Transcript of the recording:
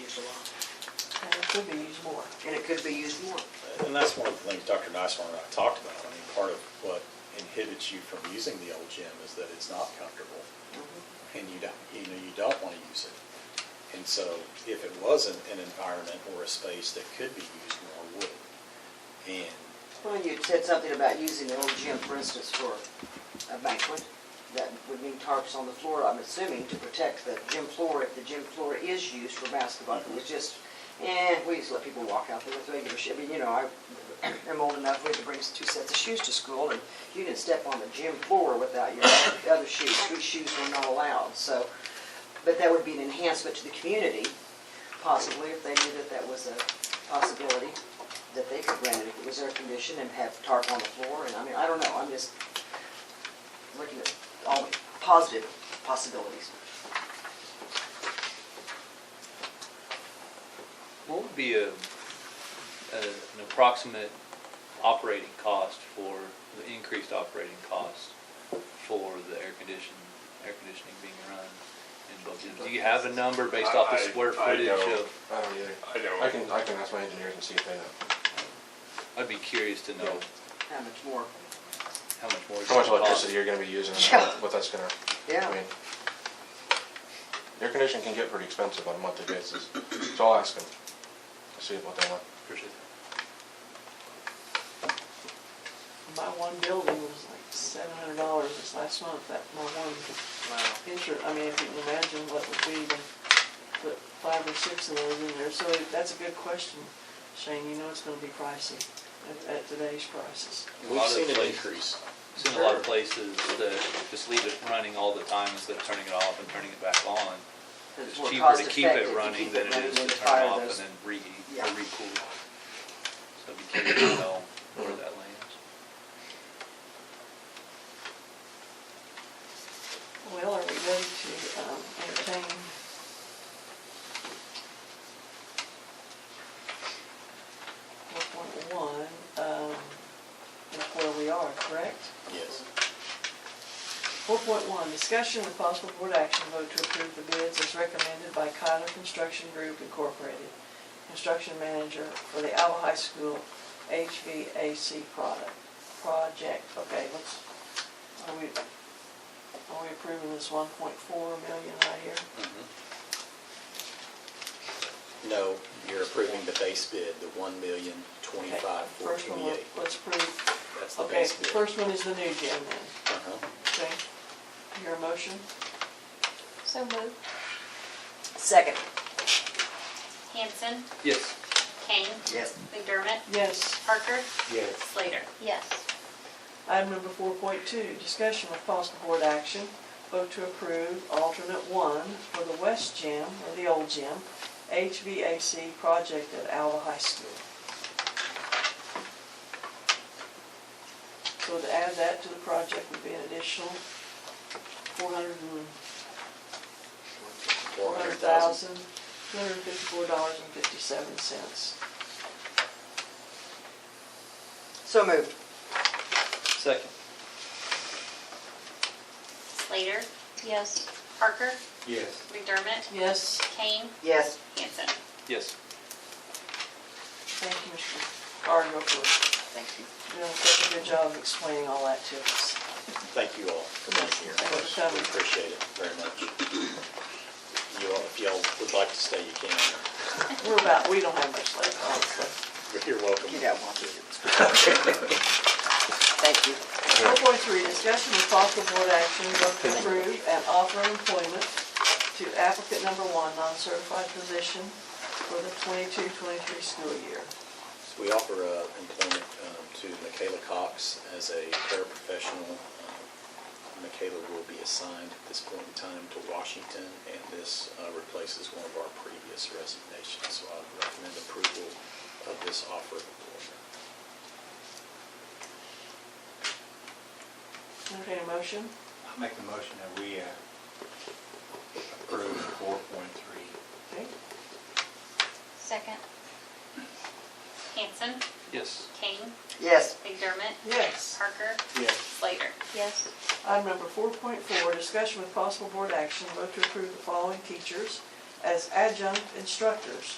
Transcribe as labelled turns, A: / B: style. A: used a lot.
B: And it could be used more.
C: and it could be used more.
D: And that's one of the things Dr. Niswanger and I talked about. I mean, part of what inhibits you from using the old gym is that it's not comfortable.
B: Mm-hmm.
D: And you don't, you know, you don't want to use it. And so if it was an, an environment or a space that could be used more, would. it? And
C: Well, you said something about using the old gym, for instance, for a banquet. That would mean tarps on the floor, I'm assuming, to protect the gym floor if the gym floor is used for basketball. It was just, eh, we used to let people walk out there with regular shoes. I mean, you know, I am old enough, we had to bring two sets of shoes to school, and you didn't step on the gym floor without your other shoes. These shoes were not allowed, so, but that would be an enhancement to the community, possibly, if they knew that that was a possibility that they could rent it if it was air conditioned and have tarp on the floor, and I mean, I don't know, I'm just looking at all the positive possibilities.
E: What would be a, a- an approximate operating cost for, the increased operating cost for the air condition, air conditioning being run in both gyms? Do you have a number based off the
F: I-
E: square
F: I
E: footage
F: don't.
E: of,
F: I don't either.
G: I don't.
F: Oh, I can, I can ask my engineers and see if they know.
E: I'd be curious to know
C: How much more?
E: how much more. it's
F: How much
E: gonna cost.
F: electricity you're gonna be using and
C: Yeah.
F: what that's gonna, I
C: Yeah,
F: mean. Air conditioning can get pretty expensive on a monthly basis, so I'll ask them, see what they want.
E: Appreciate that.
B: My one building was like seven hundred dollars this last month, that, my one insurance, I mean, if you can imagine what would be to put five or six of those in there. So that's a good question, Shane, you know it's gonna be pricey at, at today's prices.
E: A
D: we've
E: lot of
D: seen an
E: places-
D: increase.
E: Seen a lot of places that just leave it running all the time instead of turning it off and turning it back on.
C: it's
E: It's
C: more
E: cheaper
C: cost
E: to keep
C: effective
E: it
C: to
E: running
C: keep
E: than
C: it
E: it
C: running
E: is to
C: than to
E: turn it
C: fire
E: off and
C: those.
E: then reheat
C: Yeah.
E: or recool. So it'd be curious to know where that lands.
B: Well, are we ready to um, entertain? Four point one, um, that's where we are, correct?
D: Yes.
B: Four point one, discussion with possible board action, vote to approve the bids as recommended by Kyler Construction Group Incorporated, construction manager for the Alva High School HVAC product, project. Okay, let's, are we, are we approving this one point four million right here?
D: No, you're approving the base bid, the one million
B: Okay,
D: twenty-five four
B: First one,
D: twenty-eight.
B: let's approve.
D: That's the
B: Okay,
D: base bid.
B: first one is the new gym then,
D: Uh-huh.
B: okay? Your motion?
H: So moved.
C: Second,
H: Hanson,
E: Yes.
H: Kane,
C: yes,
H: McDermott,
B: Yes.
H: Parker,
G: Yes.
H: Slater. Yes.
B: Item number four point two, discussion with possible board action, vote to approve alternate one for the West Gym, or the old gym, HVAC project at Alva High School. So to add that to the project would be an additional four hundred and, four hundred thousand, two hundred and fifty-four dollars and fifty-seven cents.
C: so moved,
E: Second.
H: Slater. Yes. Parker,
G: Yes.
H: McDermott,
B: Yes,
H: Kane,
C: yes,
H: Hanson.
E: Yes.
B: thank you, Mr. Gardner, for
C: thank you.
B: doing such a good job of explaining all that to us.
D: Thank you all for being here.
B: Thanks for coming.
D: We appreciate it very much. You all, if y'all would like to stay, you can.
B: We're about, we don't have much left, honestly.
D: You're welcome.
C: Get out, while I'm doing this. Thank you.
B: Four point three, discussion with possible board action, vote to approve and offer employment to applicant number one, non-certified position for the 22-23 school year.
D: So we offer uh, employment um, to Michaela Cox as a paraprofessional. Um, Michaela will be assigned at this point in time to Washington, and this uh, replaces one of our previous resignations. So I would recommend approval of this offer of employment.
B: Entertain a motion?
G: I make the motion that we uh, approve four point three.
B: Okay.
H: Second. Hanson,
E: Yes.
H: Kane,
C: Yes,
H: McDermott,
B: Yes.
H: Parker,
G: Yes.
H: Slater. Yes.
B: Item number four point four, discussion with possible board action, vote to approve the following teachers as adjunct instructors